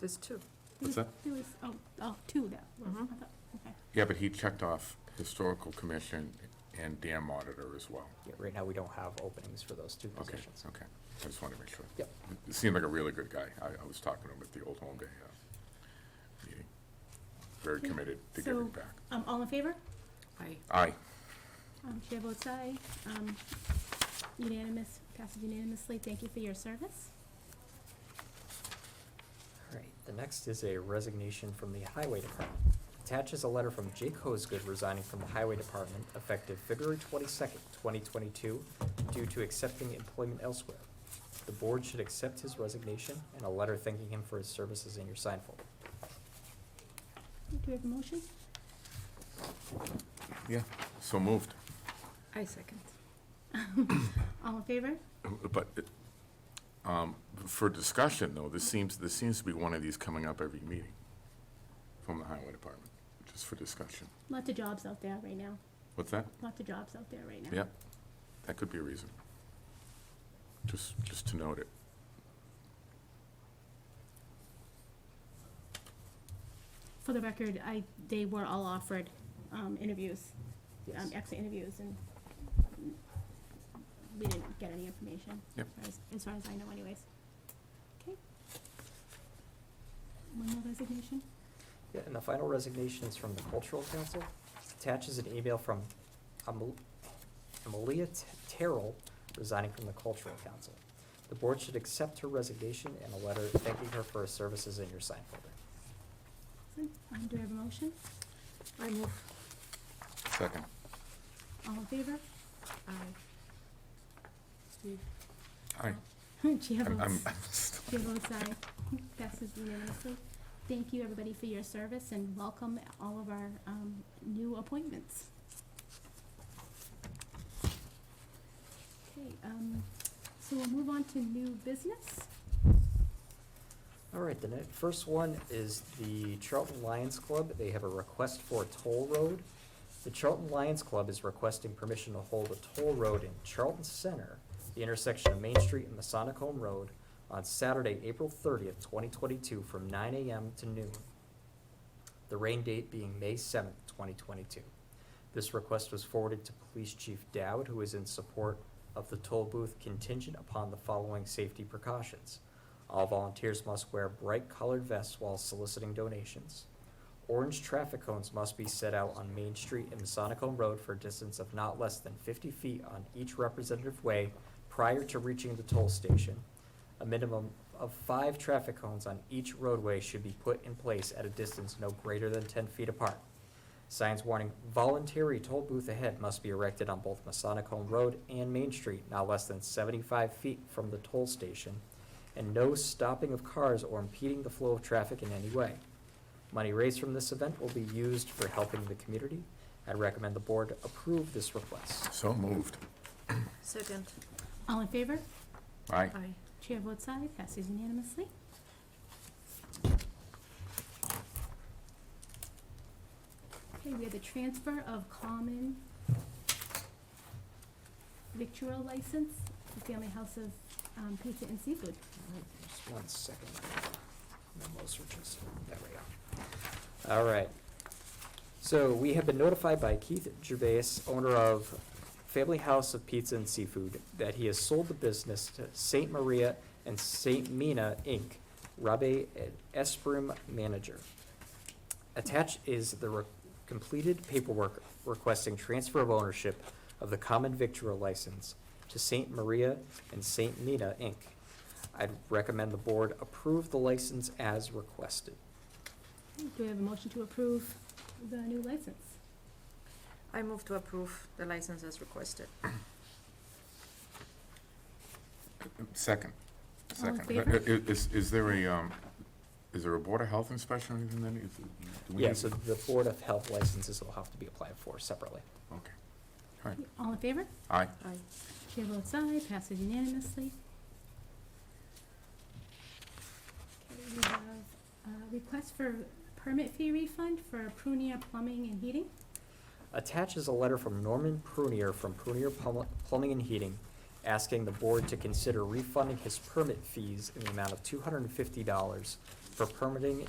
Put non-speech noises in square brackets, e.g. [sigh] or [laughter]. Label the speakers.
Speaker 1: There's two.
Speaker 2: What's that?
Speaker 3: There was, oh, oh, two that were, I thought, okay.
Speaker 2: Yeah, but he checked off Historical Commission and Dam Monitor as well.
Speaker 4: Yeah, right now, we don't have openings for those two
Speaker 2: Okay,
Speaker 4: positions.
Speaker 2: okay. I just wanted to make sure.
Speaker 4: Yep.
Speaker 2: He seemed like a really good guy. I, I was talking to him at the Old Home Day uh, meeting. Very
Speaker 3: Okay,
Speaker 2: committed to
Speaker 3: so-
Speaker 2: giving back.
Speaker 3: Um, all in favor?
Speaker 1: I
Speaker 2: Aye.
Speaker 3: Um, chair votes aye, um, unanimous, passes unanimously, thank you for your service.
Speaker 4: All right, the next is a resignation from the Highway Department. Attaches a letter from Jake Hosgood resigning from the Highway Department effective February twenty-second, twenty twenty-two, due to accepting employment elsewhere. The board should accept his resignation and a letter thanking him for his services in your sign folder.
Speaker 3: Do we have a motion?
Speaker 2: Yeah, so moved. [clears throat]
Speaker 1: I second.
Speaker 3: All in favor?
Speaker 2: But, um, for discussion though, this seems, this seems to be one of these coming up every meeting from the Highway Department, just for discussion.
Speaker 3: Lots of jobs out there right now,
Speaker 2: What's that?
Speaker 3: lots of jobs out there right now.
Speaker 2: Yeah, that could be a reason. Just, just to note it.
Speaker 3: For the record, I, they were all offered, um, interviews, um,
Speaker 4: Yes.
Speaker 3: exit interviews, and we didn't get any information.
Speaker 2: Yep.
Speaker 3: as far as- As far as I know anyways. Okay. One more resignation?
Speaker 4: Yeah, and the final resignation is from the Cultural Council. Attaches an email from Amal- Amalia T- Terrell resigning from the Cultural Council. The board should accept her resignation and a letter thanking her for her services in your sign folder.
Speaker 3: Um, do I have a motion?
Speaker 1: I move.
Speaker 2: Second.
Speaker 3: All in favor? [laughs]
Speaker 1: I. Steve.
Speaker 2: Aye.
Speaker 3: Chair
Speaker 2: I'm- I'm-
Speaker 3: votes, chair votes aye. [laughs] Passes unanimously. Thank you, everybody, for your service, and welcome all of our, um, new appointments. Okay, um, so we'll move on to new business.
Speaker 4: All right, the ne- first one is the Charlton Lions Club. They have a request for a toll road. The Charlton Lions Club is requesting permission to hold a toll road in Charlton Center, the intersection of Main Street and Masonic Home Road, on Saturday, April thirtieth, twenty twenty-two, from nine AM to noon. The rain date being May seventh, twenty twenty-two. This request was forwarded to Police Chief Dowd, who is in support of the toll booth contingent upon the following safety precautions. All volunteers must wear bright colored vests while soliciting donations. Orange traffic cones must be set out on Main Street and Masonic Home Road for a distance of not less than fifty feet on each representative way prior to reaching the toll station. A minimum of five traffic cones on each roadway should be put in place at a distance no greater than ten feet apart. Signs warning voluntary toll booth ahead must be erected on both Masonic Home Road and Main Street, not less than seventy-five feet from the toll station, and no stopping of cars or impeding the flow of traffic in any way. Money raised from this event will be used for helping the community. I recommend the board approve this request.
Speaker 2: [laughs] So moved.
Speaker 1: Second.
Speaker 3: All in favor?
Speaker 2: Aye.
Speaker 1: I.
Speaker 3: Chair votes aye, passes unanimously. Okay, we have the transfer of common victual license to Family House of um, Pizza and Seafood.
Speaker 4: Just one second. Memo searches. There we go. All right. So we have been notified by Keith Gervais, owner of Family House of Pizza and Seafood, that he has sold the business to Saint Maria and Saint Mina Inc., Rabe Esprim manager. Attached is the re- completed paperwork requesting transfer of ownership of the common victual license to Saint Maria and Saint Mina Inc. I'd recommend the board approve the license as requested.
Speaker 3: Do we have a motion to approve the new license?
Speaker 1: I move to approve the license as requested.
Speaker 2: Second.
Speaker 3: All in
Speaker 2: Second.
Speaker 3: favor?
Speaker 2: I- i- Is, is there a, um, is there a Board of Health inspection or anything that needs? do we
Speaker 4: Yeah,
Speaker 2: need-
Speaker 4: so the Board of Health licenses will have to be applied for separately.
Speaker 2: Okay. All right.
Speaker 3: All in favor?
Speaker 2: Aye.
Speaker 1: I.
Speaker 3: Chair votes aye, passes unanimously. Okay, we have a request for permit fee refund for Prunia Plumbing and Heating.
Speaker 4: Attached is a letter from Norman Prunier from Prunier Plum- Plumbing and Heating, asking the board to consider refunding his permit fees in the amount of two hundred and fifty dollars for permitting